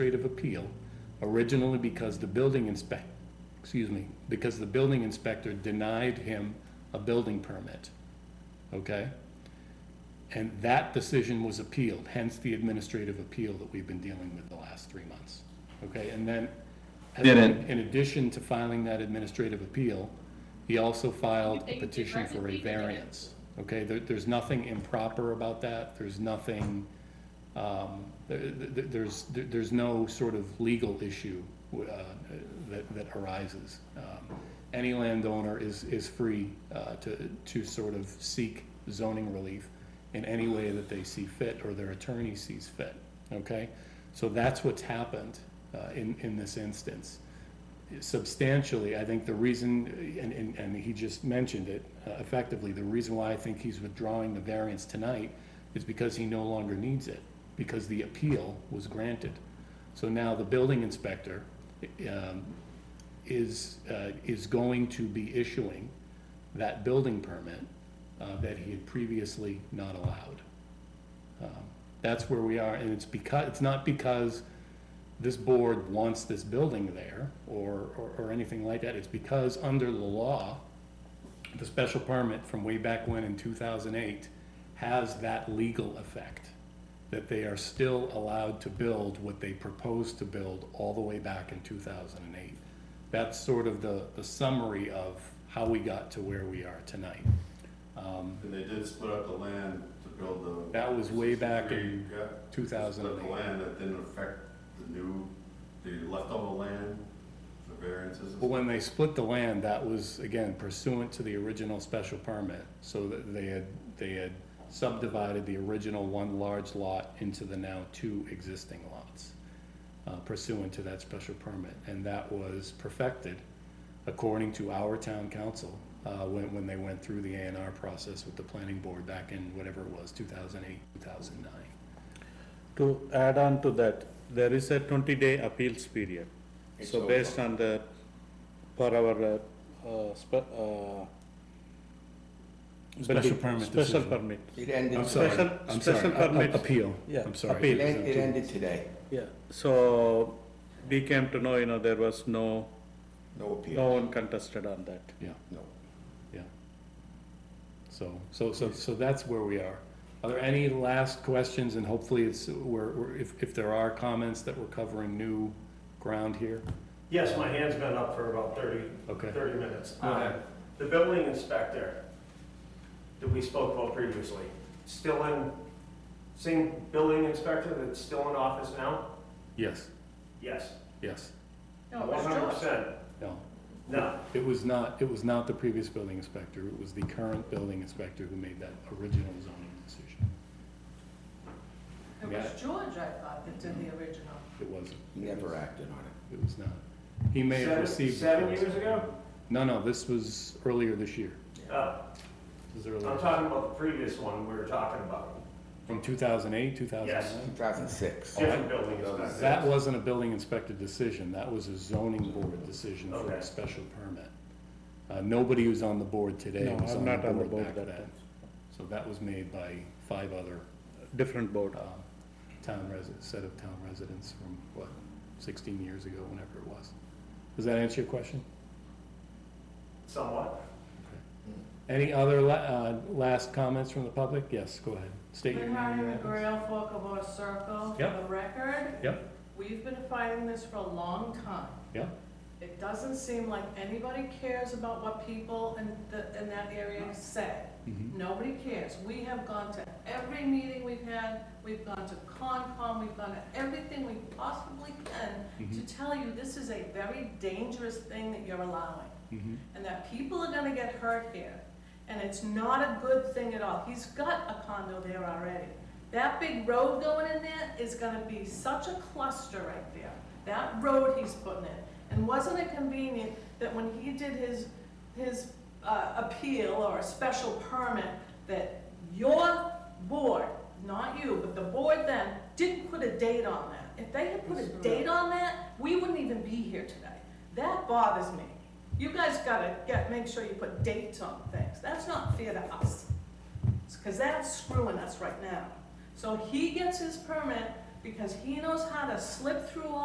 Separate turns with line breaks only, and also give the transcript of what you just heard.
administrative appeal originally because the building inspect, excuse me, because the building inspector denied him a building permit. Okay? And that decision was appealed, hence the administrative appeal that we've been dealing with the last three months. Okay, and then,
Didn't-
in addition to filing that administrative appeal, he also filed a petition for a variance. Okay, there, there's nothing improper about that, there's nothing, um, there, there- there's, there- there's no sort of legal issue, uh, that, that arises. Um, Any landowner is, is free, uh, to, to sort of seek zoning relief in any way that they see fit or their attorney sees fit, okay? So that's what's happened, uh, in, in this instance substantially, I think the reason, and, and, and he just mentioned it uh, effectively, the reason why I think he's withdrawing the variance tonight is because he no longer needs it, because the appeal was granted. So now the building inspector, um, is, uh, is going to be issuing that building permit, uh, that he had previously not allowed. Um, That's where we are, and it's because, it's not because this board wants this building there or, or, or anything like that. It's because under the law, the special permit from way back when in two thousand eight has that legal effect, that they are still allowed to build what they proposed to build all the way back in two thousand and eight. That's sort of the, the summary of how we got to where we are tonight. Um,
And they did split up the land to build the.
That was way back in
Yeah.
two thousand
Split
and
the
eight.
land that didn't affect the new, the leftover land, the variances. and
But when they split the land, that was, again, pursuant to the original special permit. So that they had, they had subdivided the original one large lot into the now two existing lots uh, pursuant to that special permit. And that was perfected according to our town council uh, when, when they went through the A and R process with the planning board back in whatever it was, 2008, 2009.
To add on to that, there is a twenty-day appeals period. So based on the, per our, uh, uh, spe- uh.
Special
building-
permit
Special
decision.
permit,
It ended,
I'm sorry,
Special-
I'm
special
sorry, a- a-
permit.
Appeal,
Yeah,
I'm sorry.
appeal.
it en- it ended today,
yeah. So we came to know, you know, there was no,
no
no
appeal,
one contested on that.
Yeah.
no.
Yeah. So, so, so, so that's where we are. Are there any last questions, and hopefully it's, we're, we're- if, if there are comments that we're covering new ground here?
Yes, my hand's been up for about 30,
Okay.
30 minutes.
Go ahead.
Um, The building inspector that we spoke about previously, still in, same building inspector that's still in office now?
Yes,
Yes.
yes,
No, it was
One hundred
George.
percent,
no.
no.
It was not, it was not the previous building inspector, it was the current building inspector who made that original zoning decision.
It
Yeah.
was George, I thought, that did the original.
It wasn't.
He never acted on it.
It was not. He may have
Seven-
received. the
Seven
first.
years ago?
No, no, this was earlier this year.
Oh,
This was
I'm
earlier,
talking about the previous one we were talking about.
from two thousand eight, two thousand
Yes.
nine?
2006.
Different building inspector.
That wasn't a building inspector decision, that was a zoning board decision for a
Okay.
special permit. Uh, nobody who's on the board today
No,
was
I'm
on the
not on the
board
board
back
that
then.
time.
So that was made by five other,
Different board.
uh, town residents, set of town residents from, what, sixteen years ago, whenever it was. Does that answer your question?
Somewhat.
Any other la- uh, last comments from the public? Yes, go ahead, state your name.
Bernard
and
and
address.
Grail Forkabor Circle, for
Yep.
the record,
Yep,
we've been fighting this for a long time.
yep.
It doesn't seem like anybody cares about what people in the, in that area say.
Mhm.
Nobody cares. We have gone to every meeting we've had, we've gone to Concom, we've gone to everything we possibly can
Mhm.
to tell you this is a very dangerous thing that you're allowing.
Mhm.
and that people are gonna get hurt here, and it's not a good thing at all. He's got a condo there already. That big road going in there is gonna be such a cluster right there, that road he's putting in. And wasn't it convenient that when he did his, his, uh, appeal or a special permit, that your board, not you, but the board then, didn't put a date on that? If they had put a date on that, we wouldn't even be here today. That bothers me. You guys gotta get, make sure you put dates on things. That's not fair to us. Because that's screwing us right now. So he gets his permit because he knows how to slip through all